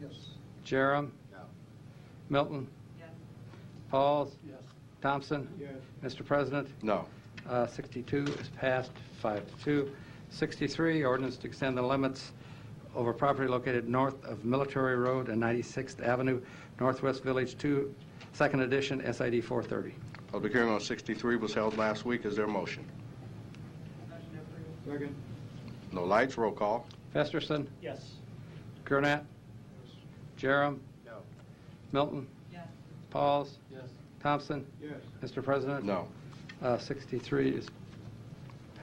Yes. Jerem. No. Milton. Yes. Pauls. Yes. Thompson. Yes. Mr. President, No. uh, 62 is passed, 5 to 2. 63, ordinance to extend the limits over property located north of Military Road and 96th Avenue, Northwest Village 2, Second Edition, SID 430. Public hearing on 63 was held last week. Is there a motion? Motion approved. Second. No lights, roll call. Festerson, Yes. Gurnett, Jerem, No. Milton, Yes. Pauls, Yes. Thompson. Yes. Mr. President? No. Uh, 63 is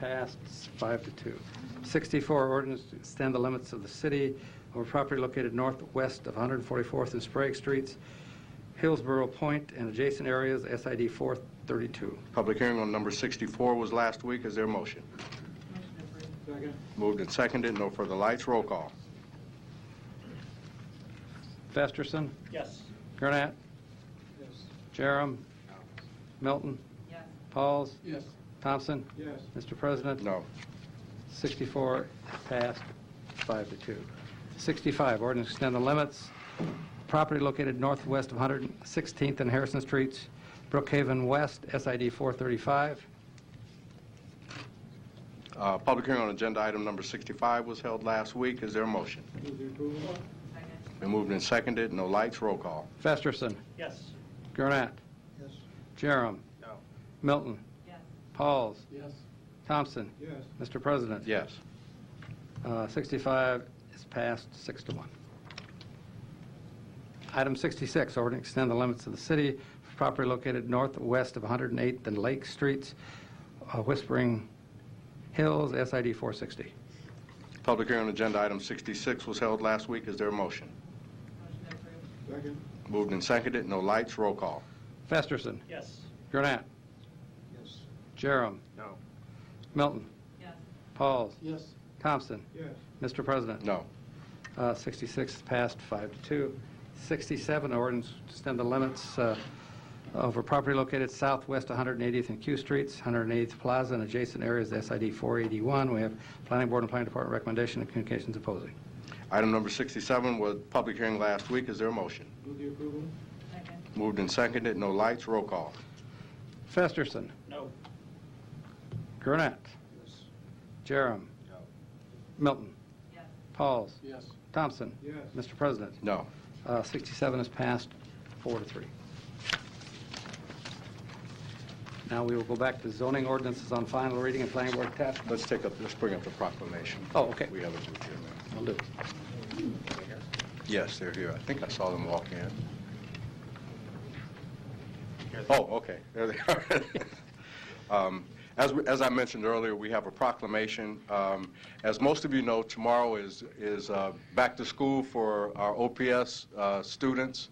passed, five to two. 64, ordinance to extend the limits of the city over property located northwest of 144th and Sprague Streets, Hillsborough Point, and adjacent areas, SID 432. Public hearing on number 64 was last week. Is there a motion? Motion approved. Second. Moved and seconded, no further lights, roll call. Festerson, Yes. Gurnett, Yes. Jerem, Milton, Yes. Pauls, Yes. Thompson. Yes. Mr. President? No. 64 passed, five to two. 65, ordinance to extend the limits, property located northwest of 116th and Harrison Streets, Brookhaven West, SID 435. Uh, Public hearing on agenda item number 65 was held last week. Is there a motion? Move the approval. Second. Been moved and seconded, no lights, roll call. Festerson, Yes. Gurnett, Yes. Jerem. No. Milton, Yes. Pauls, Yes. Thompson. Yes. Mr. President? Yes. Uh, 65 is passed, six to one. Item 66, order to extend the limits of the city for property located northwest of 108th and Lake Streets, uh, Whispering Hills, SID 460. Public hearing on agenda item 66 was held last week. Is there a motion? Motion approved. Second. Moved and seconded, no lights, roll call. Festerson, Yes. Gurnett, Yes. Jerem. No. Milton, Yes. Pauls, Yes. Thompson. Yes. Mr. President? No. Uh, 66 is passed, five to two. 67, ordinance to extend the limits uh, over property located southwest 180th and Q Streets, 180th Plaza, and adjacent areas, SID 481. We have Planning Board and Planning Department recommendation and communications opposing. Item number 67 was public hearing last week. Is there a motion? Move the approval. Second. Moved and seconded, no lights, roll call. Festerson, No. Gurnett, Yes. Jerem, No. Milton, Yes. Pauls, Yes. Thompson. Yes. Mr. President, No. uh, 67 is passed, four to three. Now we will go back to zoning ordinances on final reading and Planning Board attachment. Let's take up, let's bring up the proclamation. Oh, okay. We have it with you now. I'll do it. Yes, they're here. I think I saw them walk in. Oh, okay, there they are. Um, As, we- as I mentioned earlier, we have a proclamation. Um, As most of you know, tomorrow is, is uh, back to school for our OPS uh, students.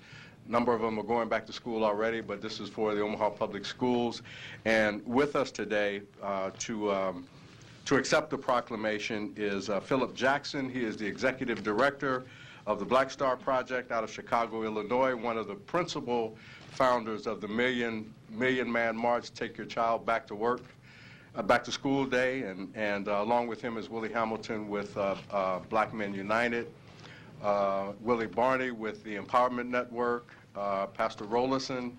A Number of them are going back to school already, but this is for the Omaha Public Schools. And with us today uh, to um, to accept the proclamation is uh, Philip Jackson. He is the executive director of the Black Star Project out of Chicago, Illinois, one of the principal founders of the Million Million Man March, Take Your Child Back to Work, uh, Back to School Day, and, and uh, along with him is Willie Hamilton with uh, uh, Black Men United, uh, Willie Barney with the Empowerment Network, uh, Pastor Rollison,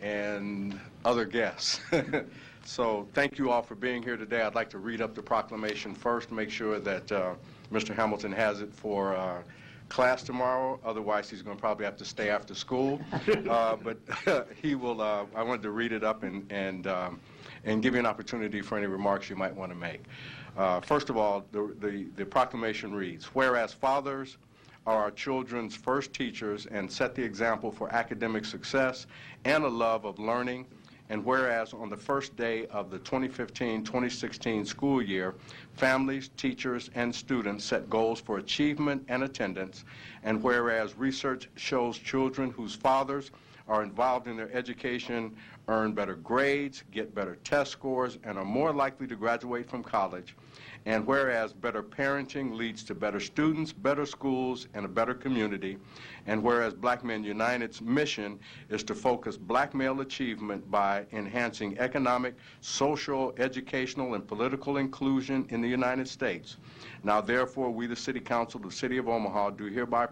and other guests. So thank you all for being here today. I'd like to read up the proclamation first, make sure that uh, Mr. Hamilton has it for uh, class tomorrow, otherwise he's going to probably have to stay after school. Uh, But he will, uh, I wanted to read it up and, and um, and give you an opportunity for any remarks you might want to make. Uh, First of all, the- the the proclamation reads, "Whereas fathers are our children's first teachers and set the example for academic success and a love of learning. And whereas on the first day of the 2015-2016 school year, families, teachers, and students set goals for achievement and attendance. And whereas research shows children whose fathers are involved in their education earn better grades, get better test scores, and are more likely to graduate from college. And whereas better parenting leads to better students, better schools, and a better community, and whereas Black Men United's mission is to focus black male achievement by enhancing economic, social, educational, and political inclusion in the United States. Now therefore, we, the City Council of the City of Omaha, do hereby